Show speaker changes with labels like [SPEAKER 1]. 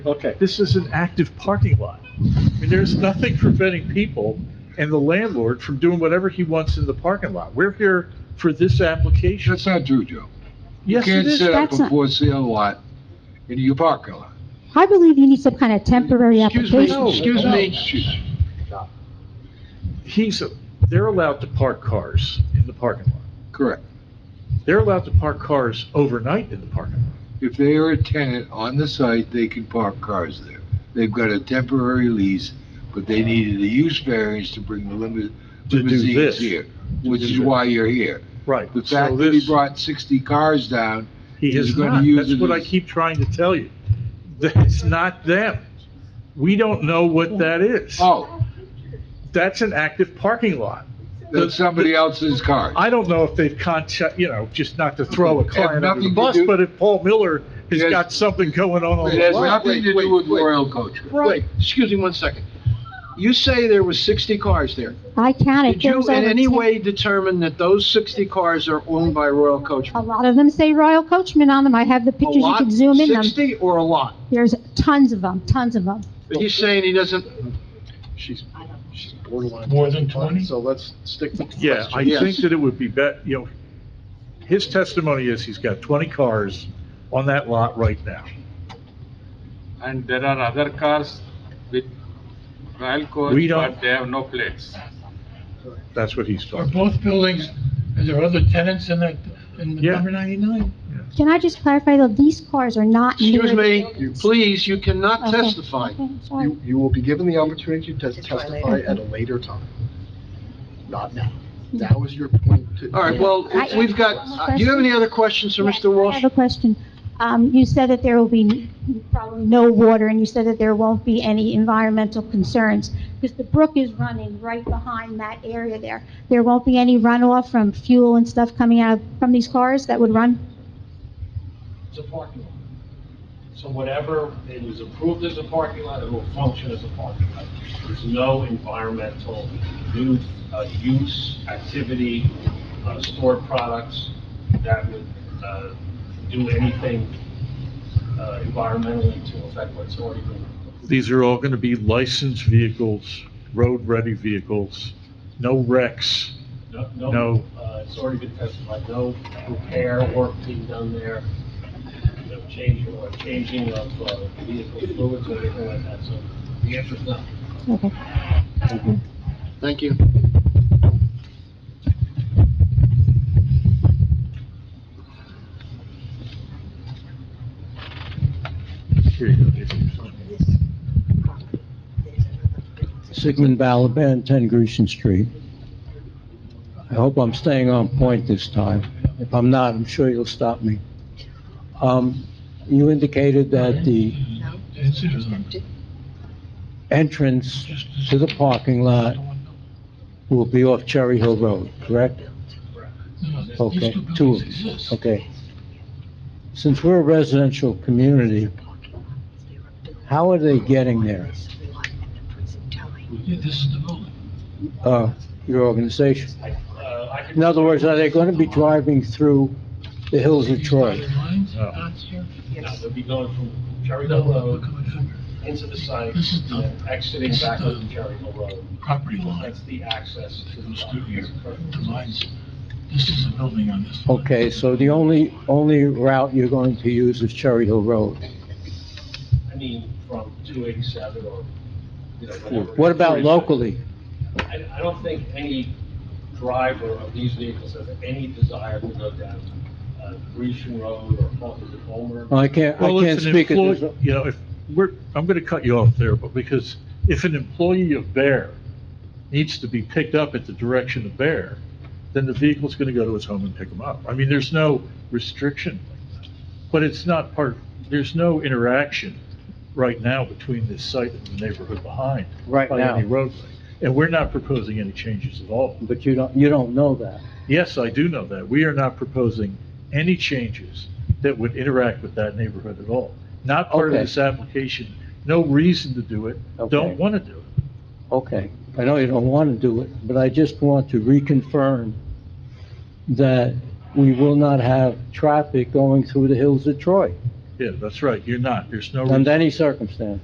[SPEAKER 1] Okay.
[SPEAKER 2] This is an active parking lot. I mean, there's nothing preventing people and the landlord from doing whatever he wants in the parking lot. We're here for this application.
[SPEAKER 3] That's not true, Joe.
[SPEAKER 2] Yes,
[SPEAKER 3] You
[SPEAKER 2] it
[SPEAKER 3] can't set
[SPEAKER 2] is.
[SPEAKER 3] up
[SPEAKER 4] That's not-
[SPEAKER 3] a for-sale lot in your parking lot.
[SPEAKER 4] I believe you need some kind of temporary
[SPEAKER 3] Excuse me,
[SPEAKER 4] application.
[SPEAKER 3] excuse
[SPEAKER 2] No.
[SPEAKER 3] me, excuse me.
[SPEAKER 2] He's, they're allowed to park cars in the parking lot.
[SPEAKER 3] Correct.
[SPEAKER 2] They're allowed to park cars overnight in the parking lot.
[SPEAKER 3] If they are a tenant on the site, they can park cars there. They've got a temporary lease, but they needed a use variance to bring the limi-
[SPEAKER 2] To do
[SPEAKER 3] limousines
[SPEAKER 2] this.
[SPEAKER 3] here, which
[SPEAKER 2] do
[SPEAKER 3] is
[SPEAKER 2] this.
[SPEAKER 3] why you're here.
[SPEAKER 2] Right.
[SPEAKER 3] The
[SPEAKER 2] So
[SPEAKER 3] fact that he
[SPEAKER 2] this-
[SPEAKER 3] brought 60 cars down,
[SPEAKER 2] He
[SPEAKER 3] He's
[SPEAKER 2] is
[SPEAKER 3] gonna
[SPEAKER 2] not.
[SPEAKER 3] use
[SPEAKER 2] That's
[SPEAKER 3] it
[SPEAKER 2] what I
[SPEAKER 3] as-
[SPEAKER 2] keep trying to tell you. That's not them. We don't know what that is.
[SPEAKER 3] oh,
[SPEAKER 2] That's an active parking lot.
[SPEAKER 3] that's somebody else's cars.
[SPEAKER 2] I don't know if they've contact, you know, just not to throw a
[SPEAKER 3] Have
[SPEAKER 2] client under
[SPEAKER 3] nothing
[SPEAKER 2] the
[SPEAKER 3] to
[SPEAKER 2] bus,
[SPEAKER 3] do-
[SPEAKER 2] but if Paul Miller has
[SPEAKER 3] Yes.
[SPEAKER 2] got something going on on
[SPEAKER 3] It
[SPEAKER 2] the
[SPEAKER 3] has
[SPEAKER 5] Wait,
[SPEAKER 2] lot.
[SPEAKER 3] nothing to
[SPEAKER 5] wait,
[SPEAKER 3] do with
[SPEAKER 5] wait, wait.
[SPEAKER 3] Royal Coach.
[SPEAKER 5] Wait, excuse me one second. You say there was 60 cars there.
[SPEAKER 4] I counted.
[SPEAKER 5] Did
[SPEAKER 4] There
[SPEAKER 5] you
[SPEAKER 4] was
[SPEAKER 5] in
[SPEAKER 4] over
[SPEAKER 5] any
[SPEAKER 4] 10
[SPEAKER 5] way determine that those 60 cars are owned by Royal Coach?
[SPEAKER 4] A lot of them say Royal Coachman on them. I have the
[SPEAKER 5] A
[SPEAKER 4] pictures. You
[SPEAKER 5] lot,
[SPEAKER 4] can zoom in them.
[SPEAKER 5] 60 or a lot?
[SPEAKER 4] There's tons of them, tons of them.
[SPEAKER 5] But he's saying he doesn't,
[SPEAKER 6] She's, she's borderline.
[SPEAKER 2] More than
[SPEAKER 6] 20? So let's stick to.
[SPEAKER 2] Yeah, I
[SPEAKER 5] Yes.
[SPEAKER 2] think that it would be bet, you know, his testimony is he's got 20 cars on that lot right now.
[SPEAKER 7] and there are other cars with Royal
[SPEAKER 2] We
[SPEAKER 7] Coach,
[SPEAKER 2] don't-
[SPEAKER 7] but they have no plates.
[SPEAKER 2] That's what he's talking
[SPEAKER 8] Are
[SPEAKER 2] about.
[SPEAKER 8] both buildings, are there other tenants in that, in
[SPEAKER 2] Yeah.
[SPEAKER 8] number 99?
[SPEAKER 4] Can I just clarify though, these cars are not near.
[SPEAKER 5] excuse
[SPEAKER 4] the
[SPEAKER 5] me,
[SPEAKER 4] buildings.
[SPEAKER 5] please, you cannot
[SPEAKER 4] Okay,
[SPEAKER 5] testify.
[SPEAKER 4] okay, sorry.
[SPEAKER 6] You, you will be given the opportunity to testify at a later time. Not now. Now is your point to.
[SPEAKER 5] All right, well,
[SPEAKER 4] I-
[SPEAKER 5] we've got, uh, do you have any other questions for
[SPEAKER 4] Yes,
[SPEAKER 5] Mr.
[SPEAKER 4] I
[SPEAKER 5] Walsh?
[SPEAKER 4] have a question. Um, you said that there will be probably no water, and you said that there won't be any environmental concerns, because the brook is running right behind that area there. There won't be any runoff from fuel and stuff coming out from these cars that would run?
[SPEAKER 9] It's a parking lot. So whatever it was approved as a parking lot, it will function as a parking lot. There's no environmental new, uh, use, activity, uh, stored products that would, uh, do anything, uh, environmentally to affect what's already been approved.
[SPEAKER 2] These are all going to be licensed vehicles, road-ready vehicles, no wrecks.
[SPEAKER 9] No,
[SPEAKER 2] No.
[SPEAKER 9] no, uh, it's already been testified, no repair work being done there, no changing or changing of uh, vehicle fluids or anything like that, so the answer is no.
[SPEAKER 4] Okay.
[SPEAKER 5] Thank you.
[SPEAKER 2] Here you go, Dave.
[SPEAKER 10] Sigmund Balaban, 10 Grecian Street. I hope I'm staying on point this time. If I'm not, I'm sure you'll stop me. Um, You indicated that the
[SPEAKER 8] It's just empty.
[SPEAKER 10] entrance to the parking lot will be off Cherry Hill Road, correct? Okay, two of them, okay. Since we're a residential community, how are they getting there,
[SPEAKER 8] Yeah, this is the building.
[SPEAKER 10] uh, your organization?
[SPEAKER 9] I- uh, I could-
[SPEAKER 10] In other words, are they going to be driving through the hills of Troy?
[SPEAKER 2] No.
[SPEAKER 9] No, they'll be going from Cherry
[SPEAKER 8] No,
[SPEAKER 9] Hill
[SPEAKER 8] no,
[SPEAKER 9] Road
[SPEAKER 2] Oh.
[SPEAKER 8] coming down
[SPEAKER 9] into the site,
[SPEAKER 8] This is
[SPEAKER 9] and then exiting
[SPEAKER 8] this is
[SPEAKER 9] back
[SPEAKER 8] the-
[SPEAKER 9] onto Cherry Hill Road.
[SPEAKER 8] here. Property line,
[SPEAKER 9] That's the access to
[SPEAKER 8] that
[SPEAKER 9] the
[SPEAKER 8] goes through here, the
[SPEAKER 9] property.
[SPEAKER 8] lines, this is the building on this. lot.
[SPEAKER 10] Okay, so the only, only route you're going to use is Cherry Hill Road.
[SPEAKER 9] I mean, from 287 or, you know, whatever.
[SPEAKER 10] What about locally?
[SPEAKER 9] I, I don't think any driver of these vehicles has any desire to go down, uh, Grecian Road or Hol- is it Homer.
[SPEAKER 10] I can't, I
[SPEAKER 2] Well,
[SPEAKER 10] can't
[SPEAKER 2] if an
[SPEAKER 10] speak.
[SPEAKER 2] employee,
[SPEAKER 10] at-
[SPEAKER 2] you know, if, we're, I'm going to cut you off there, but because if an employee of Bear needs to be picked up at the direction of Bear, then the vehicle's going to go to its home and pick them up. I mean, there's no restriction, but it's not part, there's no interaction right now between this site and the neighborhood behind.
[SPEAKER 10] Right
[SPEAKER 2] By any
[SPEAKER 10] now.
[SPEAKER 2] roadway. And we're not proposing any changes at all.
[SPEAKER 10] But you don't, you don't know that.
[SPEAKER 2] Yes, I do know that. We are not proposing any changes that would interact with that neighborhood at all. Not part of
[SPEAKER 10] Okay.
[SPEAKER 2] this application, no reason to do it,
[SPEAKER 10] Okay.
[SPEAKER 2] don't want to do it.
[SPEAKER 10] Okay, I know you don't want to do it, but I just want to reconfirm that we will not have traffic going through the hills of Troy.
[SPEAKER 2] Yeah, that's right, you're not, there's no. reason-
[SPEAKER 10] under any circumstance.